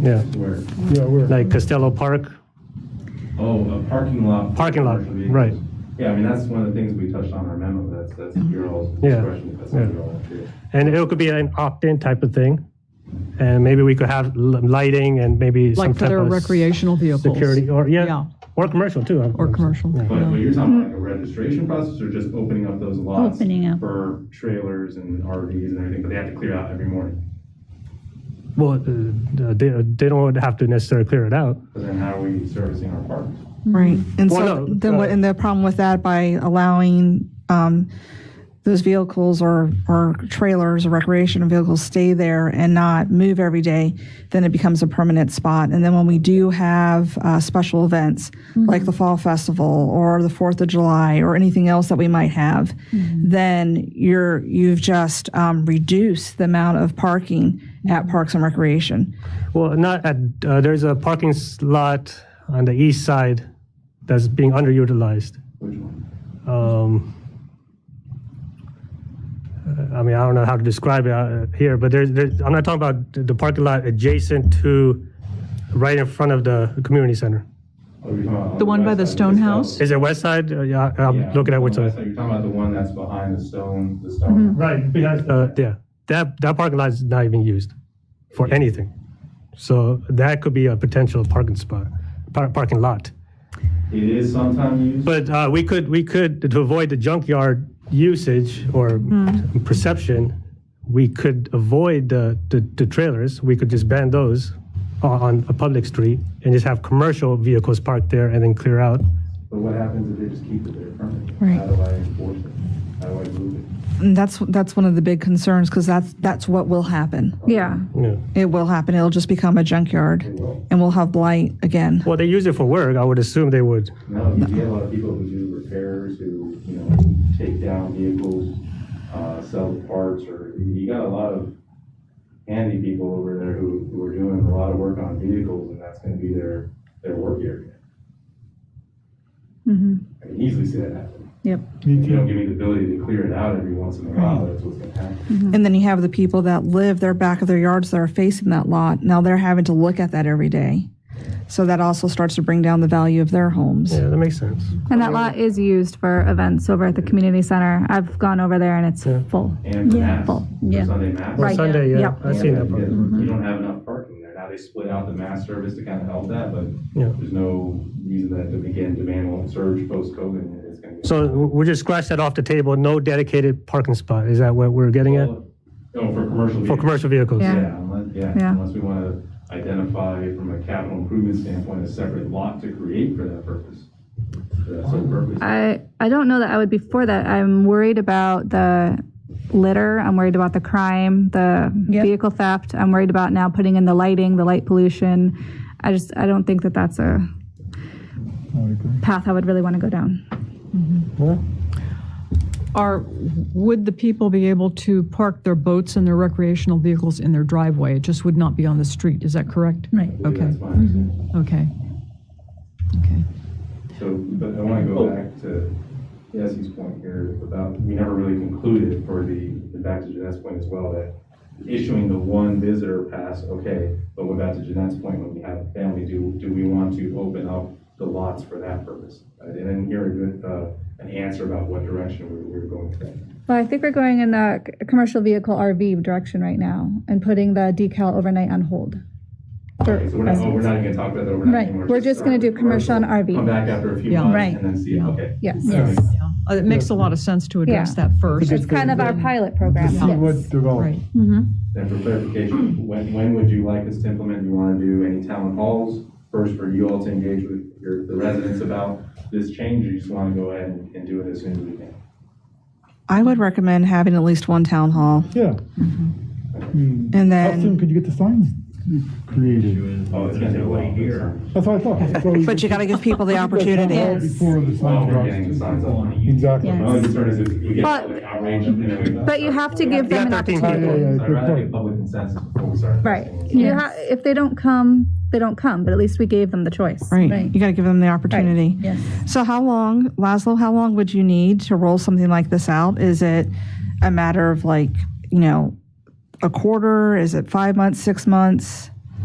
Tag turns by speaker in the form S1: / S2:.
S1: Yeah,
S2: Where,
S3: Yeah, where?
S1: like Costello Park.
S2: oh, a parking lot. for
S1: Parking lot,
S2: commercial vehicles.
S1: right.
S2: Yeah, I mean, that's one of the things we touched on in our memo, that's, that's
S4: Mm-hmm.
S2: your all's
S1: Yeah,
S2: discretion, that's
S1: yeah.
S2: up to you all too.
S1: And it could be an opt-in type of thing. And maybe we could have l- lighting and maybe some
S4: Like for
S1: type
S4: their
S1: of
S4: recreational vehicles.
S1: security or, yeah,
S4: Yeah.
S1: or commercial too.
S4: Or commercial.
S1: Yeah.
S2: But, but you're talking about like a registration process or just opening up those lots?
S5: Opening up.
S2: For trailers and RVs and everything, but they have to clear out every morning.
S1: Well, uh, they, they don't have to necessarily clear it out.
S2: But then how are we servicing our parks?
S6: Right. And
S1: Well,
S6: so
S1: no,
S6: then
S1: uh,
S6: what, and the problem with that by allowing um, those vehicles or, or trailers or recreational vehicles stay there and not move every day, then it becomes a permanent spot. And then when we do have uh, special events like the Fall Festival or the Fourth of July or anything else that we might have, then you're you've just um, reduced the amount of parking at Parks and Recreation.
S1: Well, not at, uh, there's a parking lot on the east side that's being underutilized.
S2: Which one?
S1: Um, uh, I mean, I don't know how to describe it uh, here, but there's, there's, I'm not talking about the- the parking lot adjacent to, right in front of the community center.
S2: Oh, you're talking about on
S4: The one by
S2: west
S4: the
S2: side,
S4: stone
S2: just out.
S4: house?
S1: Is it west side? Uh, Yeah, I-
S2: Yeah,
S1: I'm looking at
S2: on
S1: which
S2: the west
S1: side.
S2: side. You're talking about the one that's behind the stone, the stone.
S1: Right, behind. Uh, yeah, that, that parking lot is not even used for anything. So that could be a potential parking spot, par- parking lot.
S4: Mm-hmm.
S2: It is sometimes used.
S1: But uh, we could, we could, to avoid the junkyard usage or
S7: Hmm.
S1: perception, we could avoid the, the the trailers. We could just ban those on- on a public street and just have commercial vehicles parked there and then clear out.
S2: But what happens if they just keep it there permanently?
S6: Right.
S2: How do I enforce it? How do I move it?
S6: And that's that's one of the big concerns because that's that's what will happen.
S7: Yeah.
S1: Yeah.
S6: It will happen. It'll just become a junkyard,
S2: Well,
S6: and we'll have blight again.
S1: Well, they use it for work. I would assume they would.
S2: no, you get a lot of people who do repairs, who, you know, take down vehicles, uh, sell parts, or you got a lot of handy people over there who, who are doing a lot of work on vehicles, and that's gonna be their, their work area. I can easily see that happen. If you don't give me the ability to clear it out every once in a while, that's what's gonna happen.
S6: And then you have the people that live their back of their yards that are facing that lot. Now they're having to look at that every day, so that also starts to bring down the value of their homes.
S1: Yeah, that makes sense.
S7: And that lot is used for events over at the community center. I've gone over there and it's full.
S2: And for
S5: Yeah.
S2: mass,
S7: Well,
S2: for
S7: yeah.
S2: Sunday mass.
S1: Well,
S7: Right.
S1: Sunday, yeah,
S7: Yep.
S1: I seen that. part.
S2: You don't have enough parking there. Now they split out the mass service to kind of help that, but
S1: Yeah.
S2: there's no reason that, again, demand won't surge post-COVID. and It's going to.
S1: So we just scratch that off the table. No dedicated parking spot. Is that what we're getting at
S2: Oh, for commercial.
S1: for
S2: vehicles.
S1: commercial vehicles?
S7: Yeah.
S2: Yeah, unless, yeah,
S7: Yeah.
S2: unless we want to identify from a capital improvement standpoint, a separate lot to create for that purpose. For that sole purpose.
S7: I, I don't know that I would be for that. I'm worried about the litter. I'm worried about the crime, the vehicle theft. I'm worried about now putting in the lighting, the light pollution. I just, I don't think that that's a path I would really want to go down.
S4: Are, would the people be able to park their boats and their recreational vehicles in their driveway? It just would not be on the street, is that correct?
S5: Right.
S4: Okay,
S2: That's my
S7: Mm-hmm.
S2: understanding.
S4: okay. Okay.
S2: So, but I want to go back to Jesse's point here about, we never really concluded for the, the back to Jeanette's point as well, that issuing the one visitor pass, okay, but what about to Jeanette's point, when we have a family, do, do we want to open up the lots for that purpose? I didn't hear a good, uh, an answer about what direction we we were going with that.
S7: Well, I think we're going in the c- commercial vehicle RV direction right now and putting the decal overnight on hold.
S2: Okay, so we're not, oh, we're not even gonna talk about that, we're not.
S7: Right,
S2: anymore,
S7: we're just gonna do commercial and RV.
S2: Come back after a few
S4: Yeah.
S2: months
S5: Right.
S2: and then see, okay.
S7: Yes.
S2: Yes.
S4: Yeah. Uh, It makes a lot of sense to address
S7: Yeah.
S4: that first.
S7: It's kind of our pilot program.
S3: See what
S4: Right.
S3: develops.
S2: And for clarification, when, when would you like us to implement, you want to do any town halls? First, for you all to engage with your, the residents about this change, or you just want to go ahead and and do it as soon as we can?
S6: I would recommend having at least one town hall,
S3: Yeah. I mean,
S6: and
S3: How soon
S6: then.
S3: could you get the signs created?
S2: Oh, it's gonna take a while. Year.
S3: That's what I thought. So you
S6: But you got to give people the
S3: get
S6: opportunity.
S3: Before the
S2: While
S3: signs
S2: we're
S3: drop.
S2: getting the signs up.
S3: Oh,
S2: Oh,
S3: Exactly.
S2: My only concern is if we get public outrage and then we.
S7: But you have to give them an
S1: Yeah, 13
S7: opportunity.
S3: Yeah, yeah,
S2: I'd
S3: good
S2: rather
S3: point.
S2: get public consensus before we start.
S7: Right. You ha- if they don't come, they don't come, but at least we gave them the choice.
S6: Right. You got to give them the opportunity.
S5: Yes.
S6: So how long, Laszlo, how long would you need to roll something like this out? Is it a matter of like, you know, a quarter? Is it five months, six months?